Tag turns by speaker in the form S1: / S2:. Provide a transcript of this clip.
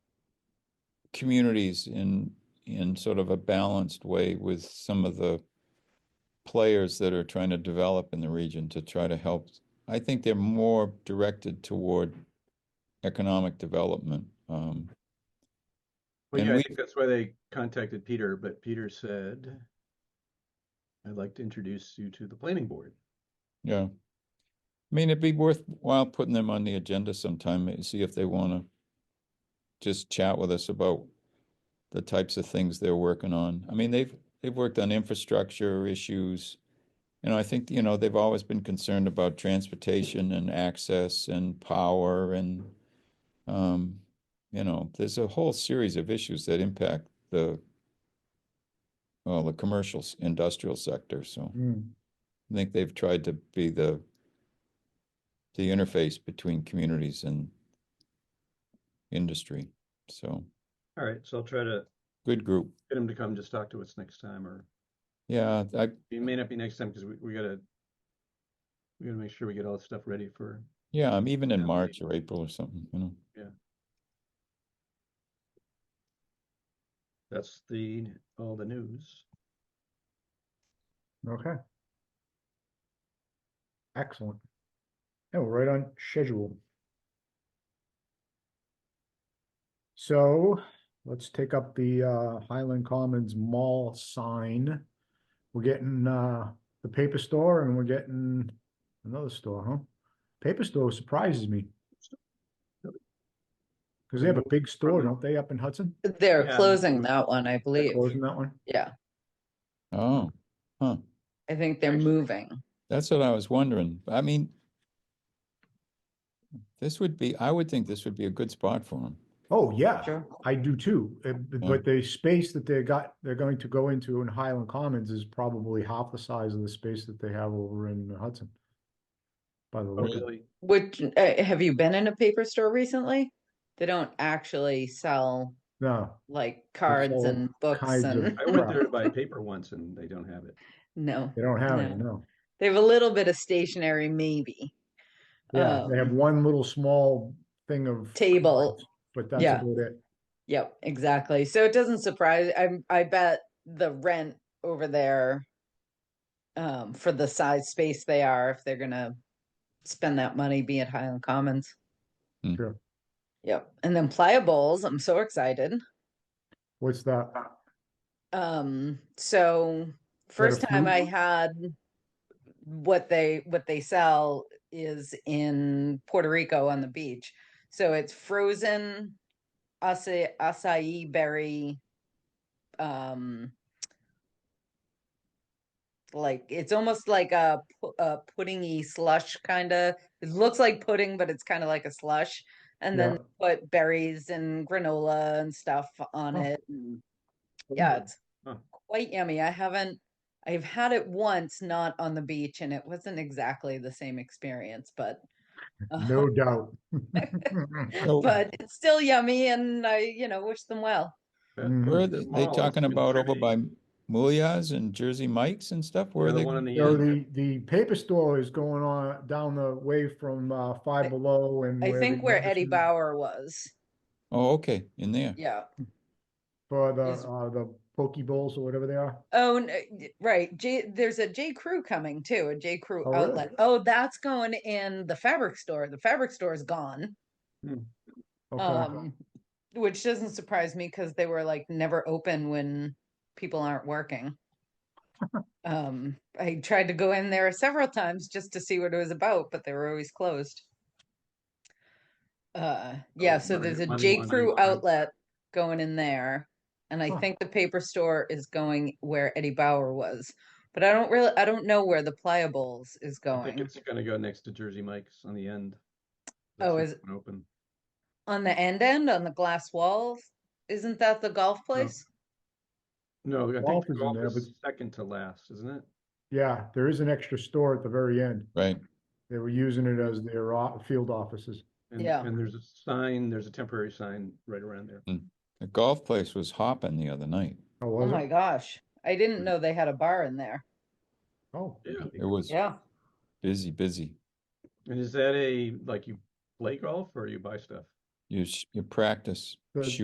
S1: communities in, in sort of a balanced way with some of the players that are trying to develop in the region to try to help. I think they're more directed toward economic development. Um,
S2: Well,
S1: And
S2: yeah, I
S1: we-
S2: think that's why they contacted Peter, but Peter said, I'd like to introduce you to the planning board.
S1: yeah. I mean, it'd be worthwhile putting them on the agenda sometime, and see if they wanna just chat with us about the types of things they're working on. I mean, they've, they've worked on infrastructure issues. You know, I think, you know, they've always been concerned about transportation and access and power and, um, you know, there's a whole series of issues that impact the, well, the commercial, s- industrial sector, so. I think they've tried to be the the interface between communities and industry. So
S2: All right, so I'll try to
S1: good group.
S2: get him to come just talk to us next time, or
S1: Yeah, I
S2: it may not be next time because we, we gotta, we gotta make sure we get all the stuff ready for,
S1: yeah, I'm even in
S2: Yeah,
S1: March or April or something, you know.
S2: that's the, all the news.
S3: Okay. Excellent. Yeah, we're right on schedule. So let's take up the uh, Highland Commons Mall sign. We're getting uh, the paper store and we're getting another store, huh? Paper store surprises me. Because they have a big store, don't they, up in Hudson?
S4: They're
S2: Yeah.
S4: closing that one, I
S3: They're
S4: believe.
S3: Closing that one?
S4: Yeah,
S1: Oh, huh.
S4: I think they're
S2: Actually-
S4: moving.
S1: That's what I was wondering. I mean, this would be, I would think this would be a good spot for them.
S3: Oh, yeah.
S4: Sure.
S3: I do too, uh, b-
S1: Yeah.
S3: but the space that they got, they're going to go into in Highland Commons is probably half the size of the space that they have over in Hudson. By the
S2: Oh,
S3: look, of-
S2: really?
S4: Which, uh, have you been in a paper store recently? They don't actually sell
S3: no,
S4: like cards
S3: all
S4: and books
S3: kinds of-
S4: and,
S2: I went there to buy paper once and they don't have it.
S4: no.
S3: they don't have any,
S4: No.
S3: no.
S4: They have a little bit of stationery, maybe.
S3: Yeah, they have
S4: Um,
S3: one little small thing of.
S4: Table,
S3: cards, But that's
S4: yeah.
S3: about it.
S4: Yep, exactly. So it doesn't surprise, I, I bet the rent over there um, for the size space they are, if they're gonna spend that money, be at Highland Commons.
S1: Hmm.
S3: Sure.
S4: Yep, and then Playables, I'm so excited.
S3: What's that?
S4: Um, so first time I
S3: fruit?
S4: had what they what they sell is in Puerto Rico on the beach. So it's frozen acai, acai berry um like it's almost like a, pu- a puddingy slush kind of it looks like pudding but it's kind of like a slush and
S3: Yeah.
S4: then put berries and granola and stuff on
S3: Oh.
S4: it and Mm-hmm. yeah, it's
S2: Huh.
S4: quite yummy. I haven't, I've had it once, not on the beach, and it wasn't exactly the same experience, but.
S3: No
S4: uh,
S3: doubt.
S1: So
S4: But it's still yummy and I, you know, wish them well.
S2: But
S3: Mm.
S1: Mm-hmm. where are
S2: it's
S1: they,
S2: small,
S1: they
S2: it's
S1: talking
S2: been
S1: about over
S2: pretty.
S1: by Mulia's and Jersey Mike's and stuff? Where
S2: Yeah,
S1: are
S2: the
S1: they?
S2: one on the
S3: So
S2: end.
S3: the, the paper store is going on down the way from uh, Five
S4: I-
S3: Below and.
S4: I
S3: the
S4: think where Eddie
S3: Anderson-
S4: Bauer was.
S1: Oh, okay, in there.
S4: Yeah.
S3: For the,
S4: is-
S3: uh, the Poke Bowls or whatever they are.
S4: Oh, n- y- right. J, there's a J. Crew coming too, a J. Crew
S3: Oh, really?
S4: outlet. Oh, that's going in the fabric store. The fabric store is gone.
S3: Okay.
S4: Um, which doesn't surprise me because they were like never open when people aren't working. um, I tried to go in there several times just to see what it was about, but they were always closed. Uh, yeah,
S2: Oh,
S4: so
S2: money-
S4: there's a
S2: money
S4: J
S2: laundering
S4: Crew
S2: crime.
S4: outlet going in there, and I
S3: Huh.
S4: think the paper store is going where Eddie Bauer was, but I don't really, I don't know where the Pliables is
S2: I think
S4: going
S2: it's gonna go next to Jersey Mike's on the end.
S4: Oh,
S2: That's
S4: is-
S2: not Open.
S4: on the end end on the glass walls. Isn't that the golf place?
S2: No, I think
S3: Golf
S2: the
S3: is in
S2: golf
S3: there,
S2: is second to last, isn't it?
S3: Yeah, there is an extra store at the very end.
S1: Right,
S3: They were using it as their o- field offices.
S2: And,
S4: Yeah.
S2: and there's a sign, there's a temporary sign right around there.
S1: the golf place was hopping the other night.
S3: Oh,
S4: Oh
S3: was
S4: my
S3: it?
S4: gosh. I didn't know they had a bar in there.
S3: Oh,
S1: It was
S4: Yeah.
S1: busy, busy.
S2: And is that a, like you play golf or you buy stuff?
S1: You, sh- you practice
S3: Good.
S1: shooting.